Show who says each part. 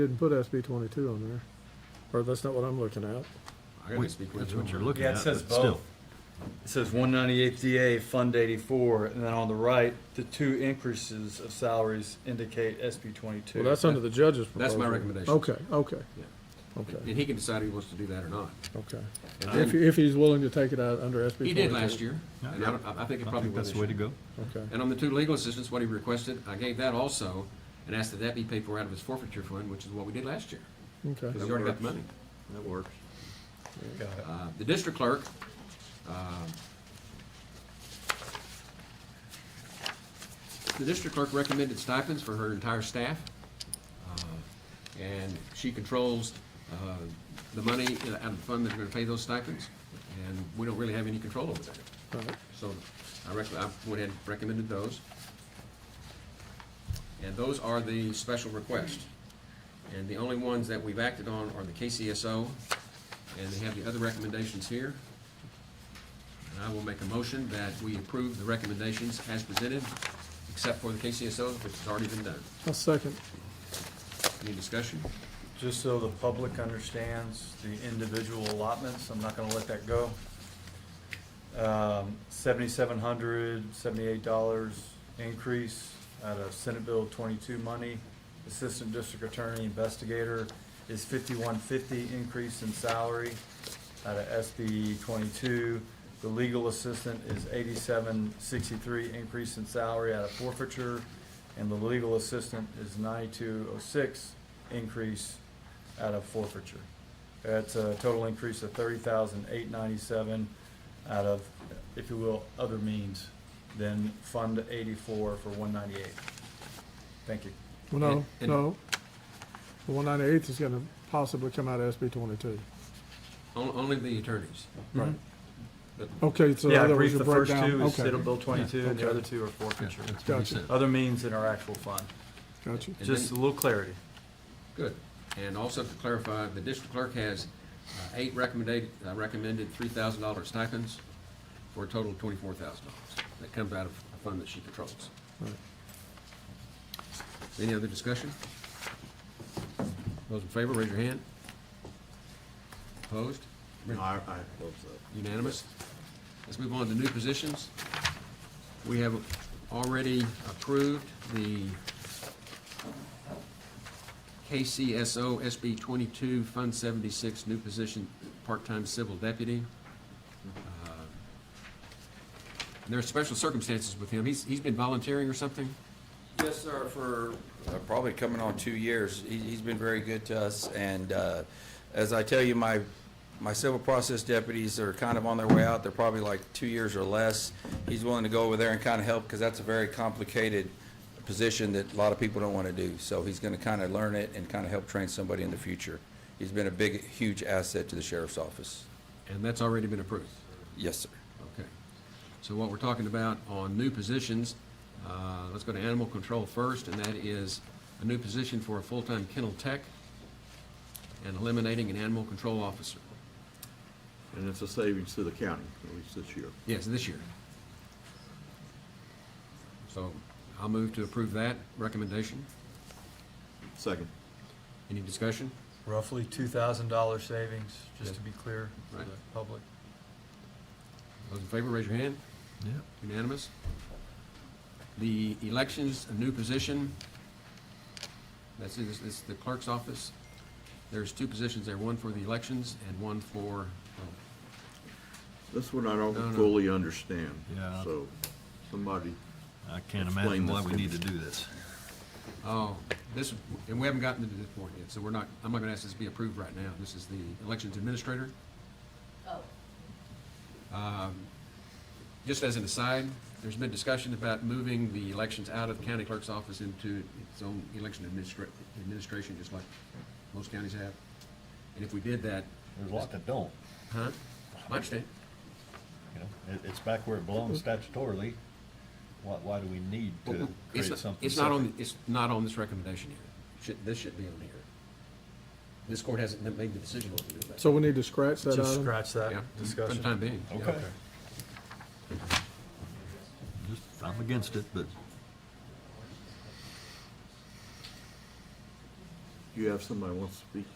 Speaker 1: Didn't put SB twenty-two on there, or that's not what I'm looking at.
Speaker 2: I gotta speak with
Speaker 3: That's
Speaker 2: you.
Speaker 3: what you're looking
Speaker 4: Yeah,
Speaker 3: at.
Speaker 4: it says
Speaker 3: but still.
Speaker 4: both. It says one ninety-eight DA, Fund eighty-four, and then on the right, the two increases of salaries indicate SB twenty-two.
Speaker 1: Well, that's under the judge's
Speaker 2: That's
Speaker 1: proposal.
Speaker 2: my recommendation.
Speaker 1: Okay, okay,
Speaker 2: Yeah.
Speaker 1: okay,
Speaker 2: And he can decide if he wants to do that or not.
Speaker 1: okay.
Speaker 2: And
Speaker 1: If,
Speaker 2: then-
Speaker 1: if he's willing to take it out under SB twenty-two.
Speaker 2: He did last year,
Speaker 3: Yeah.
Speaker 2: and I, don't- I I think it
Speaker 3: I
Speaker 2: probably
Speaker 3: think
Speaker 2: will
Speaker 3: that's
Speaker 2: this
Speaker 3: the way to
Speaker 2: year.
Speaker 3: go.
Speaker 1: Okay,
Speaker 2: And on the two legal assistants, what he requested, I gave that also, and asked that that be paid for out of his forfeiture fund, which is what we did last year,
Speaker 1: okay.
Speaker 2: because he already got the money.
Speaker 5: That works.
Speaker 4: Got it.
Speaker 2: Uh, The district clerk, um, the district clerk recommended stipends for her entire staff, uh, and she controls uh, the money out of the fund that's going to pay those stipends, and we don't really have any control over that.
Speaker 1: All right.
Speaker 2: So I rec, I went ahead and recommended those. And those are the special requests. And the only ones that we've acted on are the KCSO, and they have the other recommendations here. And I will make a motion that we approve the recommendations as presented, except for the KCSO, which has already been done.
Speaker 1: I'll second.
Speaker 2: Any discussion?
Speaker 4: Just so the public understands the individual allotments, I'm not gonna let that go. Um, seventy-seven hundred, seventy-eight dollars increase out of Senate Bill twenty-two money. Assistant District Attorney Investigator is fifty-one fifty increase in salary out of SB twenty-two. The legal assistant is eighty-seven sixty-three increase in salary out of forfeiture. And the legal assistant is ninety-two oh six increase out of forfeiture. That's a total increase of thirty thousand eight ninety-seven out of, if you will, other means than Fund eighty-four for one ninety-eight. Thank you.
Speaker 1: Well, no,
Speaker 2: And-
Speaker 1: no. The one ninety-eighth is gonna possibly come out of SB twenty-two.
Speaker 2: On- Only the attorneys.
Speaker 1: Right.
Speaker 2: But
Speaker 1: Okay, so
Speaker 4: Yeah, I
Speaker 1: that was
Speaker 4: believe
Speaker 1: your
Speaker 4: the first
Speaker 1: breakdown.
Speaker 4: two is
Speaker 1: Okay,
Speaker 4: Senate Bill twenty-two and
Speaker 1: Okay.
Speaker 4: the other two are
Speaker 3: Yeah,
Speaker 4: forfeiture.
Speaker 3: that's what he
Speaker 1: Gotcha.
Speaker 3: said.
Speaker 4: Other means in our actual fund.
Speaker 1: Gotcha.
Speaker 2: And
Speaker 4: Just a
Speaker 2: then-
Speaker 4: little clarity.
Speaker 2: Good. And also to clarify, the district clerk has uh, eight recommended, uh, recommended three thousand dollar stipends for a total of twenty-four thousand dollars. That comes out of a fund that she controls.
Speaker 1: Right.
Speaker 2: Any other discussion? Those in favor, raise your hand. Opposed?
Speaker 5: I, I hope so.
Speaker 2: Unanimous? Let's move on to new positions. We have already approved the KCSO SB 22 Fund 76 new position, part-time civil deputy. Uh, There are special circumstances with him. He's, he's been volunteering or something?
Speaker 6: Yes, sir, for uh, probably coming on two years. He- He's been very good to us, and uh, as I tell you, my, my civil process deputies are kind of on their way out. They're probably like two years or less. He's willing to go over there and kind of help, because that's a very complicated position that a lot of people don't want to do. So he's going to kind of learn it and kind of help train somebody in the future. He's been a big, huge asset to the sheriff's office.
Speaker 2: And that's already been approved.
Speaker 6: Yes, sir.
Speaker 2: Okay. So what we're talking about on new positions, uh, let's go to animal control first, and that is a new position for a full-time kennel tech and eliminating an animal control officer.
Speaker 5: And it's a savings to the county, at least this year.
Speaker 2: Yes, this year. So I'll move to approve that recommendation.
Speaker 5: Second.
Speaker 2: Any discussion?
Speaker 4: Roughly two thousand dollar savings, just
Speaker 2: Yeah.
Speaker 4: to be clear for the
Speaker 2: Right.
Speaker 4: public.
Speaker 2: Those in favor, raise your hand.
Speaker 3: Yeah.
Speaker 2: Unanimous. The elections, a new position. That's, in- it's the clerk's office. There's two positions there, one for the elections and one for, oh,
Speaker 5: This one I
Speaker 2: No,
Speaker 5: don't
Speaker 2: no.
Speaker 5: fully understand,
Speaker 3: Yeah.
Speaker 5: so somebody,
Speaker 3: I can't
Speaker 5: Explain
Speaker 3: imagine why
Speaker 5: this
Speaker 3: we
Speaker 5: to
Speaker 3: need
Speaker 5: me.
Speaker 3: to do this.
Speaker 2: oh, this, and we haven't gotten to this point yet, so we're not, I'm not gonna ask this to be approved right now. This is the elections administrator.
Speaker 7: Oh,
Speaker 2: Um, Just as an aside, there's been discussion about moving the elections out of the county clerk's office into its own election administra- administration, just like most counties have. And if we did that,
Speaker 8: There's a lot that don't,
Speaker 2: huh? I understand.
Speaker 8: you know, it, it's back where it belongs statutorily. Why, why do we need
Speaker 2: But
Speaker 8: to
Speaker 2: It's
Speaker 8: create
Speaker 2: not,
Speaker 8: something?
Speaker 2: it's not on,
Speaker 8: separate?
Speaker 2: it's not on this recommendation here. Should, this should be on here. This court hasn't made the decision what to do about it.
Speaker 1: So we need to scratch that
Speaker 4: Just
Speaker 1: item?
Speaker 4: scratch that
Speaker 2: Yeah, For the
Speaker 4: discussion.
Speaker 2: time being. yeah.
Speaker 8: Okay. Just- I'm against it, but
Speaker 5: you have somebody wants to speak?